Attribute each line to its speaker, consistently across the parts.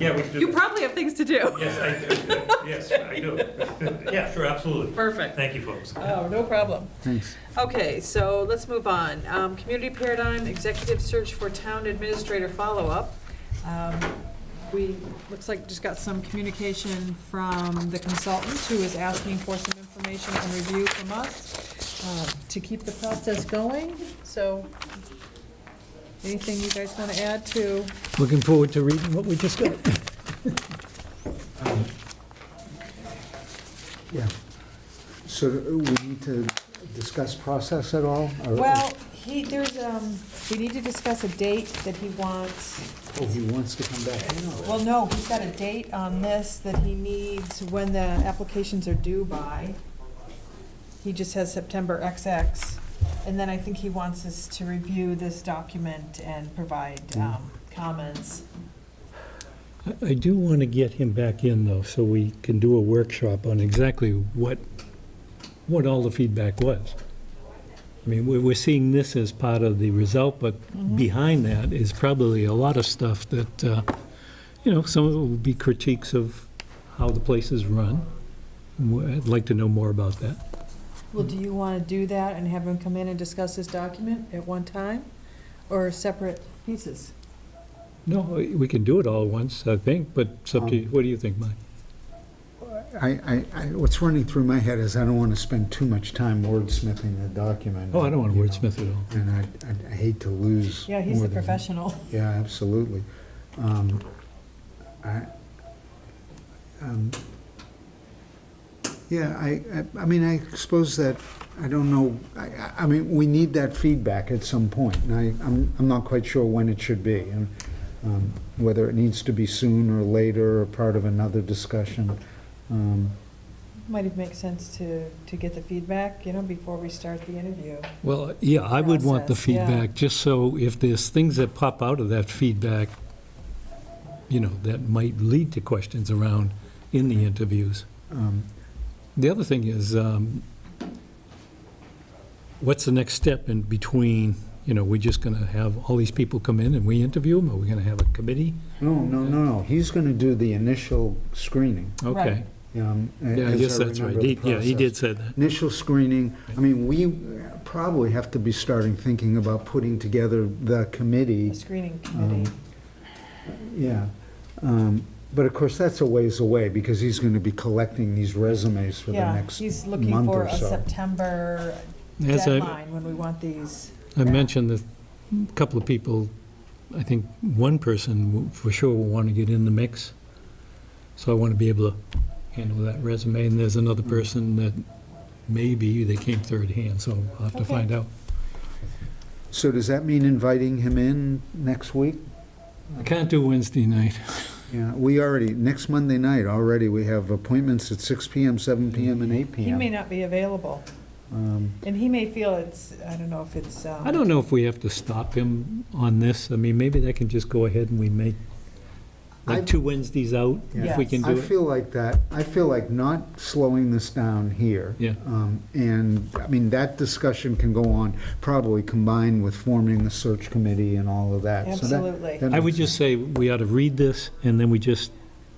Speaker 1: Yeah, we should
Speaker 2: You
Speaker 1: do.
Speaker 2: probably have things to do.
Speaker 1: Yes, I do. Yes, I do. Yeah, sure, absolutely.
Speaker 2: Perfect.
Speaker 1: Thank you, folks.
Speaker 2: Oh, no problem.
Speaker 3: Thanks.
Speaker 2: Okay, so let's move on. Um, Community Paradigm Executive Search for Town Administrator Follow-Up. Um, We, looks like just got some communication from the consultant who is asking for some information and review from us uh, to keep the process going. So anything you guys want to add to?
Speaker 3: Looking forward to reading what we just got.
Speaker 4: Yeah. So do we need to discuss process at all? or-
Speaker 2: Well, he, there's, um, we need to discuss a date that he wants.
Speaker 4: Oh, he wants to come back in?
Speaker 2: Well, no, he's got a date on this that he needs when the applications are due by. He just has September XX. And then I think he wants us to review this document and
Speaker 4: Mm.
Speaker 2: provide um, comments.
Speaker 3: I- I do want to get him back in, though, so we can do a workshop on exactly what, what all the feedback was. I mean, we're, we're seeing this as part of the result, but behind that is probably a lot of stuff that, uh, you know, some of it will be critiques of how the place is run. Wh- I'd like to know more about that.
Speaker 2: Well, do you want to do that and have him come in and discuss this document at one time or separate pieces?
Speaker 3: No, we can do it all at once, I think, but it's up
Speaker 4: Um,
Speaker 3: to you. What do you think, Mike?
Speaker 4: I, I, I, what's running through my head is I don't want to spend too much time wordsmithing the document.
Speaker 3: Oh, I don't want to
Speaker 4: you know,
Speaker 3: wordsmith at all.
Speaker 4: And I, I- I hate to lose.
Speaker 2: Yeah, he's
Speaker 4: more
Speaker 2: the
Speaker 4: than-
Speaker 2: professional.
Speaker 4: Yeah, absolutely. Um, I, um, yeah, I, I- I mean, I suppose that, I don't know, I- I, I mean, we need that feedback at some point, and I, I'm, I'm not quite sure when it should be, and um, whether it needs to be soon or later, or part of another discussion. Um,
Speaker 2: Might it make sense to, to get the feedback, you know, before we start the interview?
Speaker 3: Well, yeah, I would want the
Speaker 2: Process, yeah.
Speaker 3: feedback, just so if there's things that pop out of that feedback, you know, that might lead to questions around in the interviews.
Speaker 4: um,
Speaker 3: The other thing is, um, what's the next step in between, you know, we're just going to have all these people come in and we interview them? Are we going to have a committee?
Speaker 4: No, no, no, no, he's gonna do the initial screening.
Speaker 3: Okay.
Speaker 2: Right.
Speaker 4: um, a-
Speaker 3: Yeah, I
Speaker 4: as
Speaker 3: guess that's right.
Speaker 4: remember the
Speaker 3: He- Yeah, he
Speaker 4: process.
Speaker 3: did say that.
Speaker 4: Initial screening, I mean, we probably have to be starting thinking about putting together the
Speaker 2: A
Speaker 4: committee,
Speaker 2: screening committee?
Speaker 4: yeah. Um, But of course, that's a ways away, because he's going to be collecting these resumes for the
Speaker 2: Yeah,
Speaker 4: next
Speaker 2: he's looking
Speaker 4: month
Speaker 2: for
Speaker 4: or
Speaker 2: a
Speaker 4: so.
Speaker 2: September
Speaker 3: As I-
Speaker 2: deadline when we want these.
Speaker 3: I mentioned that a couple of people, I think one person will- for sure will want to get in the mix, so I want to be able to handle that resume, and there's
Speaker 4: Mm.
Speaker 3: another person that maybe they came third hand, so I'll have to
Speaker 2: Okay.
Speaker 3: find out.
Speaker 4: So does that mean inviting him in next week?
Speaker 3: I can't do Wednesday night.
Speaker 4: Yeah, we already, next Monday night, already, we have appointments at 6 PM, 7 PM, and 8
Speaker 2: He may
Speaker 4: PM.
Speaker 2: not be available,
Speaker 4: Um,
Speaker 2: and he may feel it's, I don't know if it's, um,
Speaker 3: I don't know if we have to stop him on this, I mean, maybe that can just go ahead and we make,
Speaker 4: I-
Speaker 3: like, two Wednesdays out, if we
Speaker 2: Yes.
Speaker 3: can
Speaker 4: I
Speaker 3: do it.
Speaker 4: feel like that, I feel like not slowing this down here.
Speaker 3: Yeah.
Speaker 4: Um, And, I mean, that discussion can go on, probably combined with forming the search committee and all of that. So that-
Speaker 2: Absolutely.
Speaker 4: that
Speaker 3: I would
Speaker 4: makes
Speaker 3: just
Speaker 4: sense.
Speaker 3: say, we ought to read this, and then we just,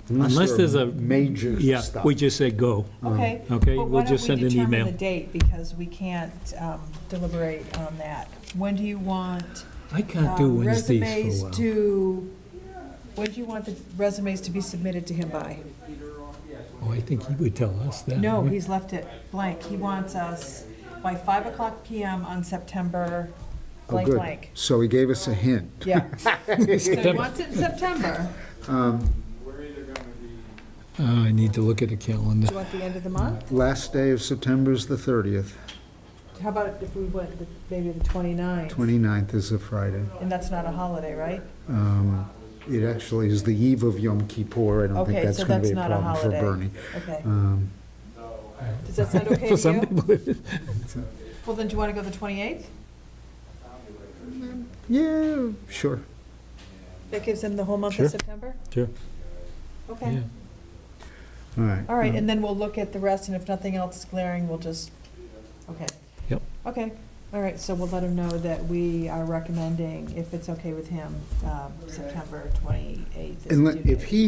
Speaker 3: unless
Speaker 4: there
Speaker 3: there's
Speaker 4: are
Speaker 3: a-
Speaker 4: Major
Speaker 3: yeah,
Speaker 4: stuff.
Speaker 3: we just say go.
Speaker 4: Um,
Speaker 2: Okay. But
Speaker 3: Okay, we'll
Speaker 2: why don't
Speaker 3: just
Speaker 2: we
Speaker 3: send an
Speaker 2: determine
Speaker 3: email.
Speaker 2: the date, because we can't um, deliberate on that. When do you want
Speaker 3: I can't do
Speaker 2: um,
Speaker 3: Wednesdays
Speaker 2: resumes
Speaker 3: for a while.
Speaker 2: to, when do you want the resumes to be submitted to him by?
Speaker 3: Oh, I think he would tell us that.
Speaker 2: No,
Speaker 3: right?
Speaker 2: he's left it blank. He wants us by 5 o'clock PM on September
Speaker 4: Oh,
Speaker 2: blank
Speaker 4: good.
Speaker 2: blank.
Speaker 4: So he gave us a hint.
Speaker 2: Yeah. So he
Speaker 3: September.
Speaker 2: wants it in September.
Speaker 3: Uh, I need to look at a calendar.
Speaker 2: Do you want the end of the month?
Speaker 4: Last day of September is the 30th.
Speaker 2: How about if we went the- maybe the 29th?
Speaker 4: 29th is a Friday.
Speaker 2: And that's not a holiday, right?
Speaker 4: Um, It actually is the eve of Yom Kippur. I don't think
Speaker 2: Okay,
Speaker 4: that's
Speaker 2: so
Speaker 4: going
Speaker 2: that's
Speaker 4: to be a
Speaker 2: not a
Speaker 4: problem for
Speaker 2: holiday.
Speaker 4: Bernie.
Speaker 2: Okay.
Speaker 4: Um,
Speaker 2: Does that sound okay
Speaker 3: For
Speaker 2: to
Speaker 3: some
Speaker 2: you?
Speaker 3: people, it is.
Speaker 2: Well, then do you want to go the 28th?
Speaker 4: Yeah, sure.
Speaker 2: That gives him the whole month
Speaker 3: Sure.
Speaker 2: of September?
Speaker 3: Sure.
Speaker 2: Okay.
Speaker 3: yeah.
Speaker 4: All right.
Speaker 2: All right,
Speaker 4: Um,
Speaker 2: and then we'll look at the rest, and if nothing else is glaring, we'll just, okay.
Speaker 3: Yep.
Speaker 2: Okay, All right, so we'll let him know that we are recommending, if it's okay with him, um, uh, September 28th. is
Speaker 4: And
Speaker 2: due
Speaker 4: let- if
Speaker 2: date.
Speaker 4: he